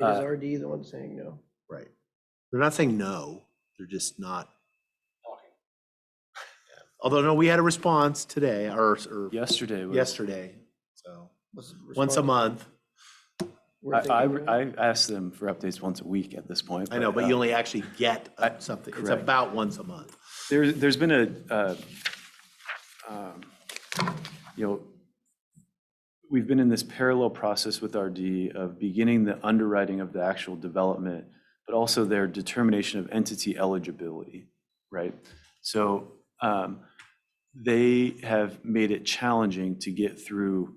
Is Uh, RD the one saying no? Right. They're not saying no, they're just not. Talking. Yeah. Although, no, we had a response today or, or Yesterday was. yesterday, so, What's the once a response? month. We're I, thinking no? I, I ask them for updates once a week at this point. I know, but uh, you only actually get uh, I- something, it's correct. about once a month. There, there's been a, uh, um, you know, we've been in this parallel process with RD of beginning the underwriting of the actual development, but also their determination of entity eligibility, right? So um, they have made it challenging to get through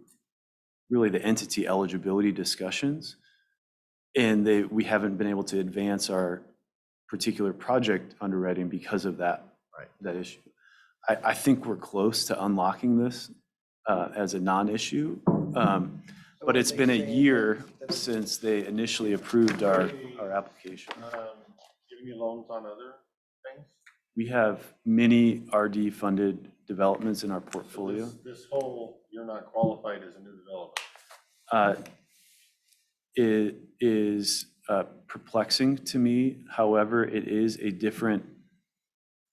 really the entity eligibility discussions. And they, we haven't been able to advance our particular project underwriting because of that Right. that issue. I, I think we're close to unlocking this uh, as a non-issue, I um, but wouldn't it's think been a saying no. year That's- since they initially approved our, our application. Um, Giving you loans on other things? We have many RD-funded developments in our portfolio. This- This whole, you're not qualified as a new developer. Uh, It is uh, perplexing to me. However, it is a different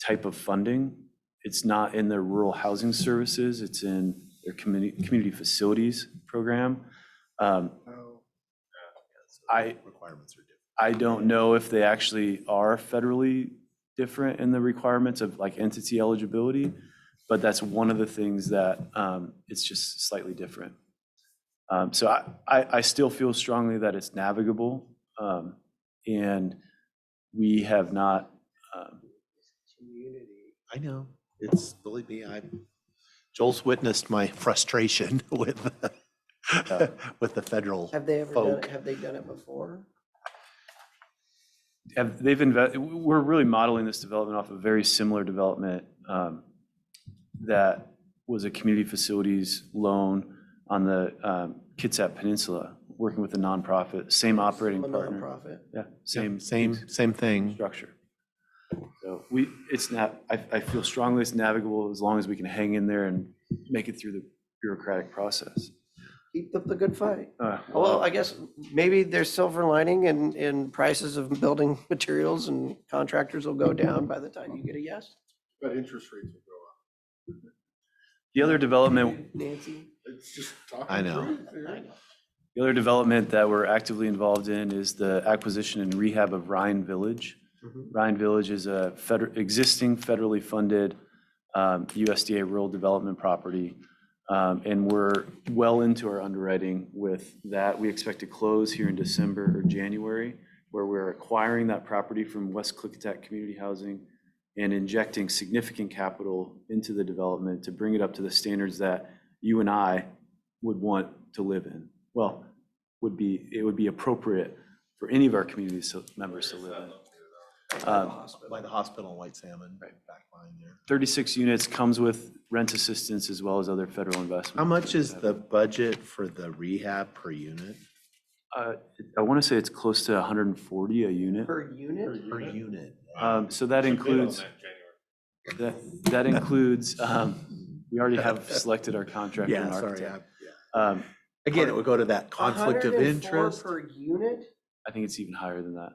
type of funding. It's not in their rural housing services, it's in their community, community facilities program. Um, I- Requirements are different. I don't know if they actually are federally different in the requirements of like entity eligibility, but that's one of the things that um, it's just slightly different. Um, So I, I, I still feel strongly that it's navigable. um, And we have not, um, Community. I know, it's, believe me, I, Joel's witnessed my frustration with, Yeah. with the federal. Have they ever done Folk. it? Have they done it before? have, they've invested, we're really modeling this development off a very similar development um, that was a community facilities loan on the um, Kitsap Peninsula, working with a nonprofit, same operating A partner. nonprofit? Yeah, same. Same, same thing. Structure. So we, it's not, I, I feel strongly it's navigable as long as we can hang in there and make it through the bureaucratic process. Keep up the good fight. Uh, Well, I guess maybe there's silver lining and, and prices of building materials and contractors will go down by the time you get a yes. But interest rates will go up. The other development, Nancy? It's just talking. I know. truth here. the other development that we're actively involved in is the acquisition and rehab of Ryan Village. Ryan Village is a feder existing federally funded um, USDA rural development property. Um, And we're well into our underwriting with that. We expect to close here in December or January, where we're acquiring that property from West Clickatack Community Housing and injecting significant capital into the development to bring it up to the standards that you and I would want to live in. Well, would be, it would be appropriate for any of our community so- members to live in. Um, By the hospital in White Salmon, right back behind there. 36 units comes with rent assistance as well as other federal investment. How much is the budget for the rehab per unit? Uh, I want to say it's close to 140 a unit. Per Per unit? Per unit? unit. Um, So that Should bid on includes, that in January. that that includes, um, we already have selected our contractor and Yeah, sorry. architect. I- yeah. Um, Again, it would go to that conflict of 104 interest. I Per unit? I think it's even higher than that.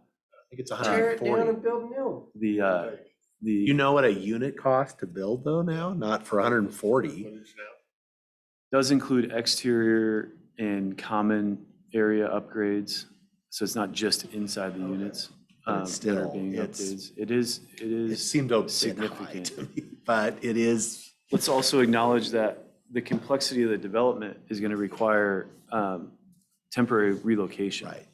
think it's Tear it down 140. and build new. The, uh, Okay, You the, know what a unit costs to build though now? Not for 140. footage now. does include exterior and common area upgrades. So it's not just inside the units. But um, it's that are still- being it's- updates. It is, it is. It seemed a bit high significant. to me, but it is, Let's also acknowledge that the complexity of the development is going to require um, temporary relocation. right.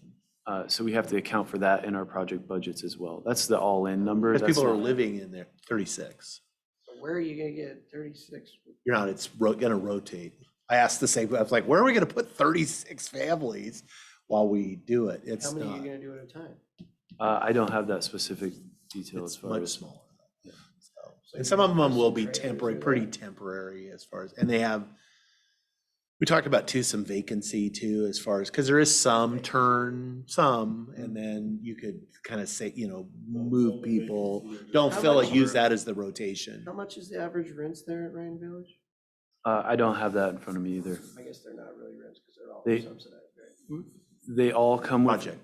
Uh, So we have to account for that in our project budgets as well. That's the all-in number. Because That's people are not- living in there, 36. So Where are you gonna get thirty-six? You're not, it's ro- gonna rotate. I asked the same, I was like, where are we gonna put 36 families while we do it? How It's many are you not, gonna do at a time? Uh, I don't have that specific detail as it's far much as. smaller. So- And some of them will be Trailers temporary, or- pretty temporary as far as, and they have, we talked about too, some vacancy too, as far as, because there is some turn, some, Mm-hmm. and then you could kind of say, you know, move people. Don't How fill it, much- use that as the rotation. How much is the average rents there at Ryan Village? uh, I don't have that in front of me either. I guess they're not really rents because they're all They- subsidized, right? They all come with Project.